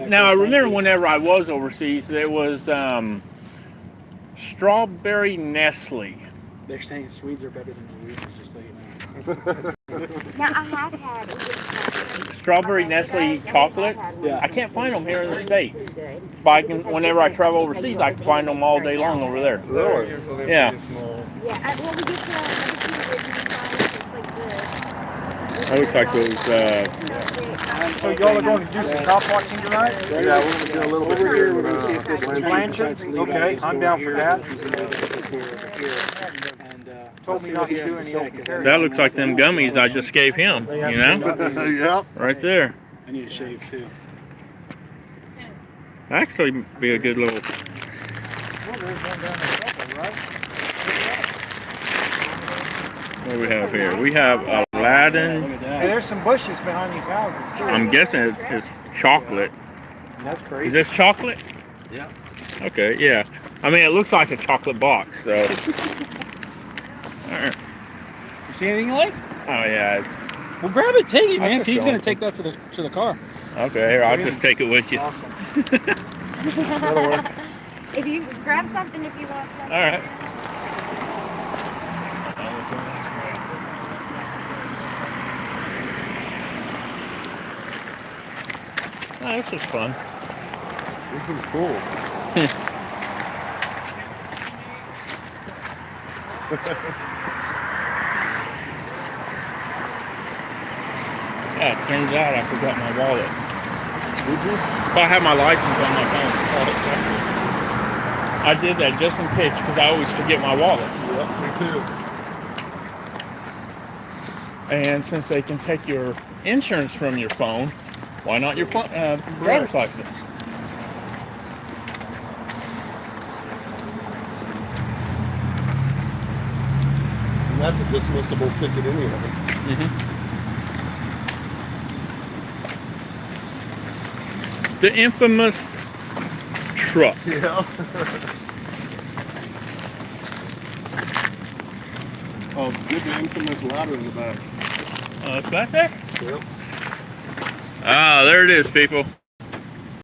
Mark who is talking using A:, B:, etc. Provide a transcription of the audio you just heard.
A: now I remember whenever I was overseas, there was um, strawberry Nestle.
B: They're saying Swedes are better than Norwegians, just so you know.
C: Now, I have had Egypt
A: Strawberry
C: chocolate.
A: Nestle
C: I've had
A: chocolates.
C: one.
B: Yeah.
A: I can't find them here in the
C: It's
A: states.
C: good.
A: But I can, whenever I travel overseas, I can find them all day long over there.
D: Really?
E: Usually
A: Yeah.
E: pretty small.
C: Yeah, I, well, we get the other
A: I
C: two
A: wish I could, uh,
C: uh.
D: So y'all are going to do some cop watching tonight?
E: Yeah, we're gonna do a little bit
D: Over here, we're
E: of,
D: gonna see if
E: uh,
D: there's
E: Atlantic.
D: Blanchard? Okay, I'm down for that.
B: Told me not to do any open carry.
A: That looks like them gummies I just gave him. You know,
E: uh, Yep.
A: right there.
B: I need a shave too.
A: Actually, be a good little. What do we have here? We have
B: Look
A: Aladdin.
B: at
D: Hey,
B: that.
D: there's some bushes behind these houses too.
A: I'm guessing it's, it's chocolate.
D: That's
A: Is
D: crazy.
A: this chocolate?
E: Yeah.
A: Okay, yeah. I mean, it looks like a chocolate box. So. oh,
B: You see anything you like?
A: Oh yeah. It's,
B: Well, grab it, take it,
A: I
B: man.
A: took
B: He's
A: the
B: gonna
A: open.
B: take that to the to the car.
A: okay, here I'll just take it with you. All
D: Awesome.
C: If you grab something, if you want something.
A: right. Oh, this was fun.
E: This is cool.
A: Yeah, it turns out I forgot my wallet. If I had my license on my phone, I'd call it separate. I did that just in case because I always forget my wallet.
E: Yep,
A: And since they can take your insurance from your phone, why not your pl- uh, driver's license?
E: me too. And that's a dismissible ticket anyway.
A: The infamous truck.
E: Yeah. Oh, good thing from this ladder in the back.
A: Uh, Oh, it's back there?
E: Yep.
A: Ah, there it is, people.